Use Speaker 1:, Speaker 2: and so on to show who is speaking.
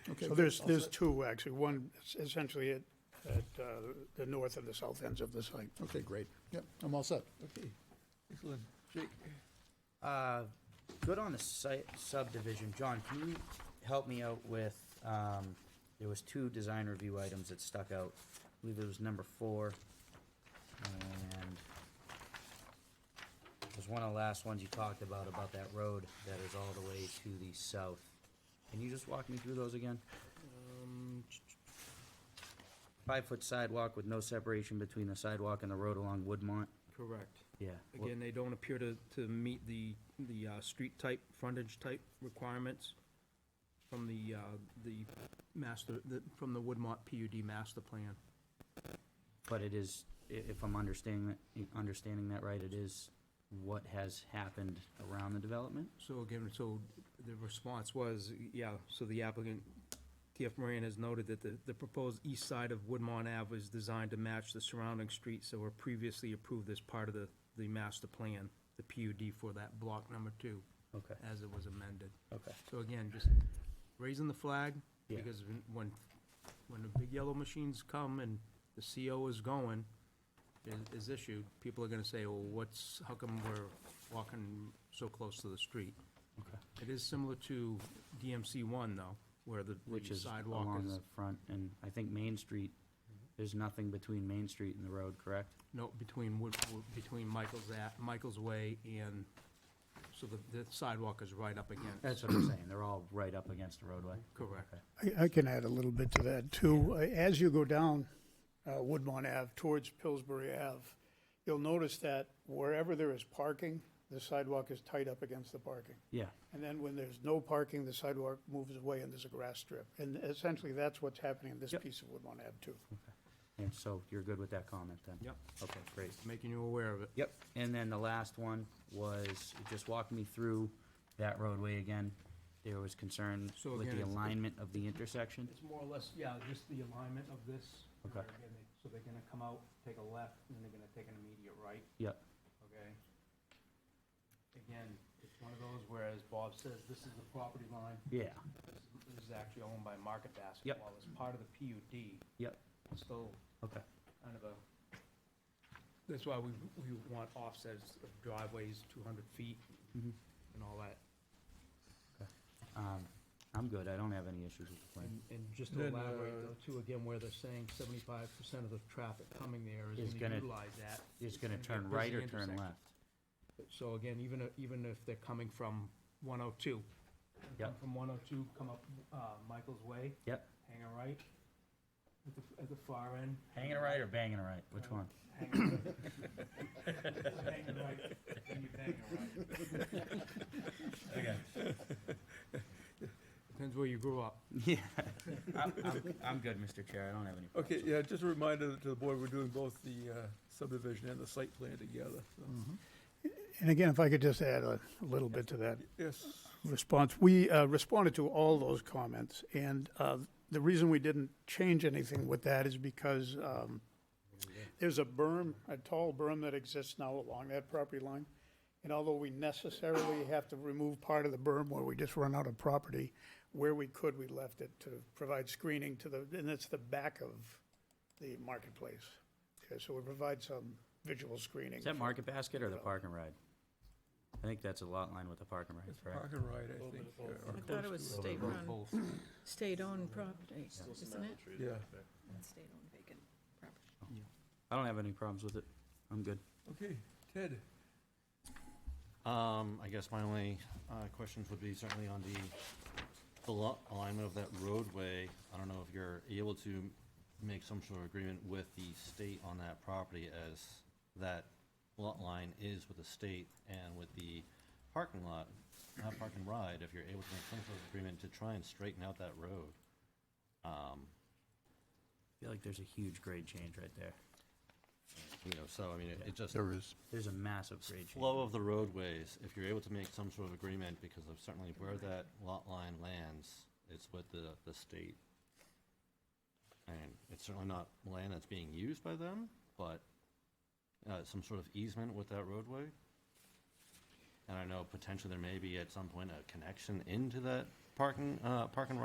Speaker 1: Okay.
Speaker 2: So there's, there's two, actually, one is essentially at, at uh, the north and the south ends of the site.
Speaker 1: Okay, great. Yep, I'm all set.
Speaker 3: Okay, excellent. Jake?
Speaker 4: Uh, good on the site subdivision. John, can you help me out with, um, there was two design review items that stuck out. I believe it was number four and it was one of the last ones you talked about, about that road that is all the way to the south. Can you just walk me through those again?
Speaker 5: Um,
Speaker 4: Five-foot sidewalk with no separation between the sidewalk and the road along Woodmont?
Speaker 5: Correct.
Speaker 4: Yeah. wha-
Speaker 5: Again, they don't appear to, to meet the, the uh, street type, frontage type requirements from the, uh, the master, the- from the Woodmont PUD master plan.
Speaker 4: But it is, i- if I'm understanding, that- understanding that right, it is what has happened around the development?
Speaker 5: So again, so the response was, yeah, so the applicant, TF Moran has noted that the, the proposed east side of Woodmont Ave is designed to match the surrounding streets that were previously approved as part of the, the master plan, the PUD for that block number two,
Speaker 4: Okay,
Speaker 5: as it was amended.
Speaker 4: okay.
Speaker 5: So again, just raising the flag,
Speaker 4: Yeah.
Speaker 5: because when- when, when the big yellow machines come and the CO is going, is- is issued, people are gonna say, well, what's, how come we're walking so close to the street?
Speaker 4: Okay.
Speaker 5: It is similar to DMC one, though, where the
Speaker 4: Which
Speaker 5: the
Speaker 4: is Mm-hmm.
Speaker 5: sidewalk
Speaker 4: along
Speaker 5: is,
Speaker 4: the front, and I think Main Street, there's nothing between Main Street and the road, correct?
Speaker 5: no, between, Wood- Wood- between Michael's, at- Michael's Way and, so the the sidewalk is right up against.
Speaker 4: That's what I'm saying, they're all right up against the roadway.
Speaker 5: Correct.
Speaker 4: Okay.
Speaker 2: I, I can add a little bit to that, too. Uh, As you go down uh, Woodmont Ave towards Pillsbury Ave, you'll notice that wherever there is parking, the sidewalk is tight up against the parking.
Speaker 4: Yeah,
Speaker 2: And then when there's no parking, the sidewalk moves away and there's a grass strip. And essentially, that's what's happening in this
Speaker 4: Yep.
Speaker 2: piece of Woodmont Ave, too.
Speaker 4: and so you're good with that comment then?
Speaker 5: Yep,
Speaker 4: Okay, great.
Speaker 5: making you aware of it.
Speaker 4: Yep, and then the last one was, just walk me through that roadway again. There was concern
Speaker 5: So
Speaker 4: with
Speaker 5: again,
Speaker 4: the
Speaker 5: it's-
Speaker 4: alignment of the intersection?
Speaker 5: It's more or less, yeah, just the alignment of this.
Speaker 4: Okay.
Speaker 5: where again they- So they're gonna come out, take a left, and then they're gonna take an immediate right,
Speaker 4: Yep,
Speaker 5: okay? Again, it's one of those where, as Bob says, this is the property line,
Speaker 4: yeah,
Speaker 5: this is- this is actually owned by Market Basket.
Speaker 4: Yep.
Speaker 5: While it's part of the PUD,
Speaker 4: yep,
Speaker 5: it's still
Speaker 4: okay,
Speaker 5: kind of a, that's why we, we want offsets of driveways, two hundred feet
Speaker 4: Mhm.
Speaker 5: and all that.
Speaker 4: um, I'm good, I don't have any issues with the plan.
Speaker 5: And, and just to
Speaker 3: Then,
Speaker 5: elaborate
Speaker 3: uh,
Speaker 5: though, too, again, where they're saying seventy-five percent of the traffic coming there
Speaker 4: Is
Speaker 5: is
Speaker 4: gonna-
Speaker 5: gonna utilize that.
Speaker 4: It's gonna
Speaker 5: It's
Speaker 4: turn
Speaker 5: gonna be a
Speaker 4: right or
Speaker 5: busy
Speaker 4: turn
Speaker 5: intersection.
Speaker 4: left?
Speaker 5: So again, even, if- even if they're coming from one oh two.
Speaker 4: Yep.
Speaker 5: From one oh two, come up, uh, Michael's Way,
Speaker 4: Yep,
Speaker 5: hang a right, at the, at the far end.
Speaker 4: hanging a right or banging a right,
Speaker 3: Oh.
Speaker 4: which one?
Speaker 5: Hang a right. Hang a right, then you bang a right.
Speaker 4: Okay.
Speaker 5: Depends where you grew up.
Speaker 4: Yeah, I'm, I'm, I'm good, Mr. Chair, I don't have any problems.
Speaker 3: Okay, yeah, just a reminder to the board, we're doing both the uh, subdivision and the site plan together. so.
Speaker 1: Mm-hmm.
Speaker 2: And again, if I could just add a a little bit to that.
Speaker 3: Yes,
Speaker 2: response. We uh, responded to all those comments, and uh, the reason we didn't change anything with that is because um, there's a berm, a tall berm that exists now along that property line. And although we necessarily have to remove part of the berm where we just run out of property, where we could, we left it to provide screening to the, and it's the back of the marketplace. Okay, so we provide some visual screening.
Speaker 4: Is that Market Basket or the Park and Ride? I think that's a lot line with the Park and Ride,
Speaker 3: it's
Speaker 4: correct?
Speaker 3: park and ride, I think. uh, or
Speaker 6: I thought it was
Speaker 3: close to
Speaker 6: state-run,
Speaker 5: Both.
Speaker 6: state-owned property, isn't it?
Speaker 3: Yeah,
Speaker 6: State-owned vacant property.
Speaker 4: I don't have any problems with it, I'm good.
Speaker 3: okay, Ted,
Speaker 7: Um, I guess my only, uh, questions would be certainly on the al- alignment of that roadway. I don't know if you're able to make some sort of agreement with the state on that property as that lot line is with the state and with the parking lot, not park and ride, if you're able to make some sort of agreement to try and straighten out that road. Um,
Speaker 4: I feel like there's a huge grade change right there.
Speaker 7: you know, so I mean, it- it just.
Speaker 1: is.
Speaker 4: There's a massive grade change.
Speaker 7: flow of the roadways, if you're able to make some sort of agreement, because of certainly where that lot line lands, it's with the, the state. And it's certainly not land that's being used by them, but, uh, some sort of easement with that roadway. And I know potentially there may be at some point a connection into that parking, uh, parking